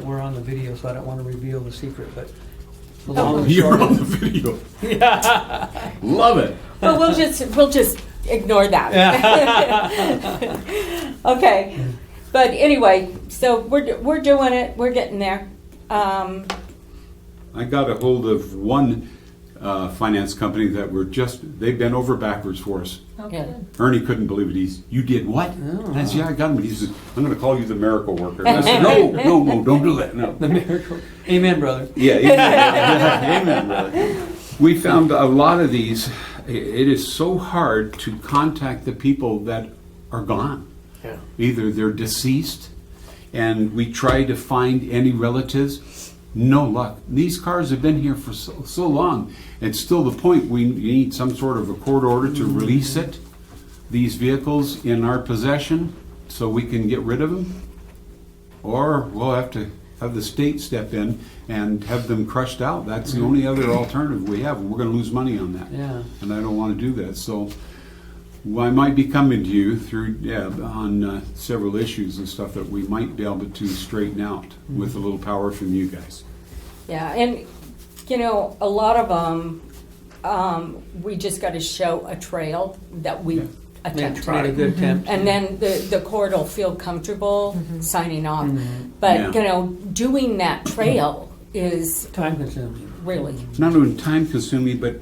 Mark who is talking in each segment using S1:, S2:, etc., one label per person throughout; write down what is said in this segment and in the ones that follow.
S1: the video, so I don't want to reveal the secret, but.
S2: Oh,
S1: the long and
S3: You're
S1: short-
S3: on the video. Love it.
S4: Well, we'll just, we'll just ignore that. Okay, but anyway, so we're, we're doing it, we're getting there. Um,
S3: I got a hold of one uh, finance company that were just, they bent over backwards for us.
S4: yeah.
S3: Ernie couldn't believe it. He's, you did what? And I said, yeah, I got him. And he said, I'm going to call you the miracle worker. And I said, no, no, no, don't do that. No.
S1: The miracle. Amen, brother.
S3: Yeah, amen, brother. Yeah, amen, brother. We found a lot of these. i- It is so hard to contact the people that are gone.
S1: Yeah.
S3: Either they're deceased, and we try to find any relatives. No luck. These cars have been here for so, so long. It's still the point we need some sort of a court order to release it. These vehicles in our possession, so we can get rid of them. Or we'll have to have the state step in and have them crushed out. That's the only other alternative we have, and we're gonna lose money on that.
S1: Mm-hmm. Yeah.
S3: And I don't wanna do that, so well, I might be coming to you through Deb on uh, several issues and stuff that we might be able to straighten out
S1: Mm-hmm.
S3: with a little power from you guys.
S4: Yeah, and, you know, a lot of them, um, we just gotta show a trail that
S3: Yeah.
S4: we
S1: Yeah,
S4: attempt.
S1: it's made a good attempt.
S4: And then the, the court will feel comfortable signing off. But,
S3: Yeah.
S4: you know, doing that trail is
S1: Time consuming.
S4: really
S3: It's not only time consuming, but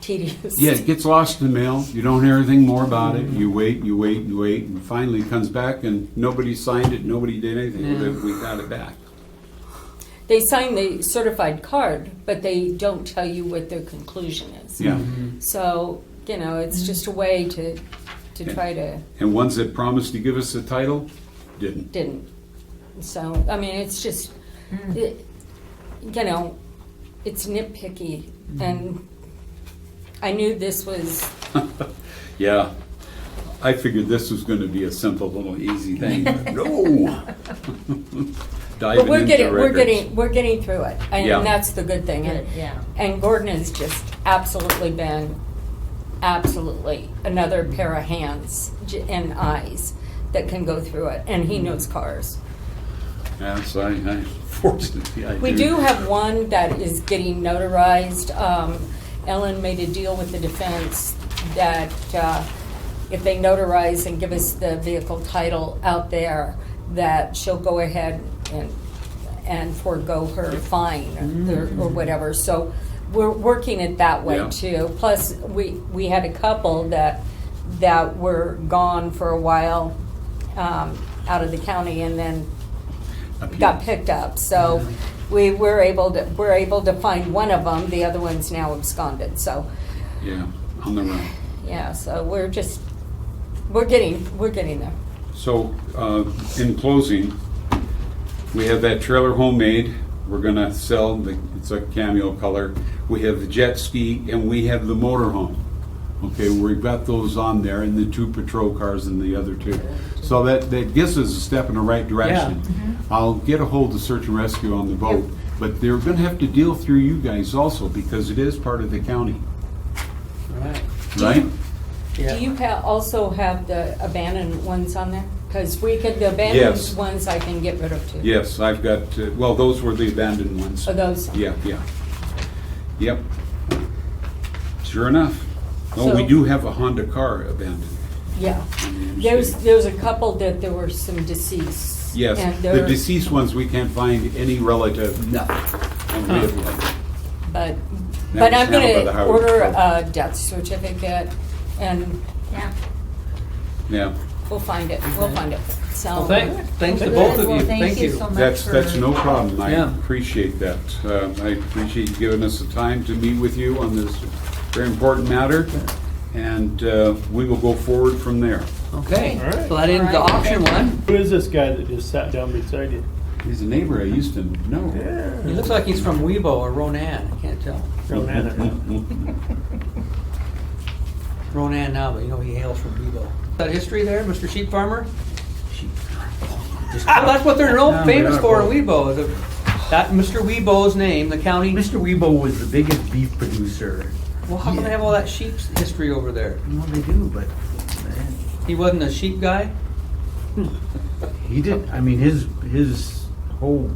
S4: tedious.
S3: Yeah, it gets lost in the mail. You don't hear anything more about
S1: Mm-hmm.
S3: it. You wait, you wait, you wait, and finally it comes back, and nobody signed it, nobody did anything.
S1: Yeah.
S3: But we got it back.
S4: They sign the certified card, but they don't tell you what their conclusion is.
S3: Yeah.
S1: Mm-hmm.
S4: So, you know, it's just a way to, to try to,
S3: And ones that promised to give us the title didn't.
S4: didn't. So, I mean, it's just, it- you know, it's nitpicky. And I knew this was,
S3: Yeah. I figured this was going to be a simple little easy thing. but no. Diving
S4: but we're
S3: into
S4: getting, we're
S3: records.
S4: getting, we're getting through it.
S3: Yeah.
S4: And that's the good thing. And-
S5: Yeah.
S4: And Gordon has just absolutely been, absolutely, another pair of hands j- and eyes that can go through it, and
S3: Mm-hmm.
S4: he knows cars.
S3: Yes, I, I fortunately I
S4: We do have one that is getting notarized. Um, Ellen made a deal with the defense that uh, if they notarize and give us the vehicle title out there, that she'll go ahead and, and forego her
S3: Mm.
S4: fine or or whatever. So we're working it that way
S3: Yeah.
S4: too. Plus, we, we had a couple that, that were gone for a while um, out of the county and then
S3: Appeal.
S4: got picked up. So we were able to, we're able to find one of them, the other one's now absconded. So,
S3: Yeah, on the run.
S4: yeah, so we're just, we're getting, we're getting there.
S3: So, uh, in closing, we have that trailer homemade. We're gonna sell, the it's a cameo color. We have the jet ski and we have the motorhome. Okay, we've got those on there and the two patrol cars and the other two. So that, that gives us a step in the right direction. I'll get a hold of search and rescue on the boat, but they're gonna have to deal through you guys also because it is part of the county,
S1: All right.
S3: right?
S1: Yeah.
S4: Do you ha- also have the abandoned ones on there? Because we could, the abandoned
S3: Yes.
S4: ones I can get rid of too.
S3: Yes, I've got, uh, well, those were the abandoned ones.
S4: Are those?
S3: Yeah, yeah. Yep. Sure enough. Oh, we
S4: So-
S3: do have a Honda car abandoned.
S4: Yeah.
S3: in the
S4: There's,
S3: state.
S4: there's a couple that there were some deceased.
S3: Yes,
S4: and
S3: the
S4: they're-
S3: deceased ones, we can't find any relative, nothing. And we have like-
S4: But,
S3: That
S4: but
S3: was
S4: I'm
S3: now by the
S4: gonna
S3: Howard
S4: order
S3: Patrol.
S4: a death certificate and
S5: Yeah.
S3: Yeah,
S4: we'll find it, we'll find it, so.
S1: Well, thanks, thanks to both of
S5: Well,
S1: you. Thank you.
S5: so much
S3: that's, that's
S5: for-
S3: no problem. I
S1: Yeah.
S3: appreciate that. Uh, I appreciate you giving us the time to meet with you on this very important matter. And uh, we will go forward from there.
S1: Okay,
S6: All right.
S1: so that ends the
S5: All right.
S1: auction one.
S6: Who is this guy that just sat down beside you?
S3: He's a neighbor I used to know.
S1: He looks like he's from Webo or Ronan, I can't tell.
S6: Ronan, I know.
S1: Ronan now, but you know he hails from Webo. That history there, Mr. Sheep Farmer? Ah, That's what they're
S2: No,
S1: known, famous
S2: we're not
S1: for in Webo, the- that Mr. Webo's name, the county.
S2: Mr. Weebo was the biggest beef producer.
S1: Well, how come they have all that sheep's history over there?
S2: Well, they do, but man,
S1: He wasn't a sheep guy?
S2: he did. I mean, his his whole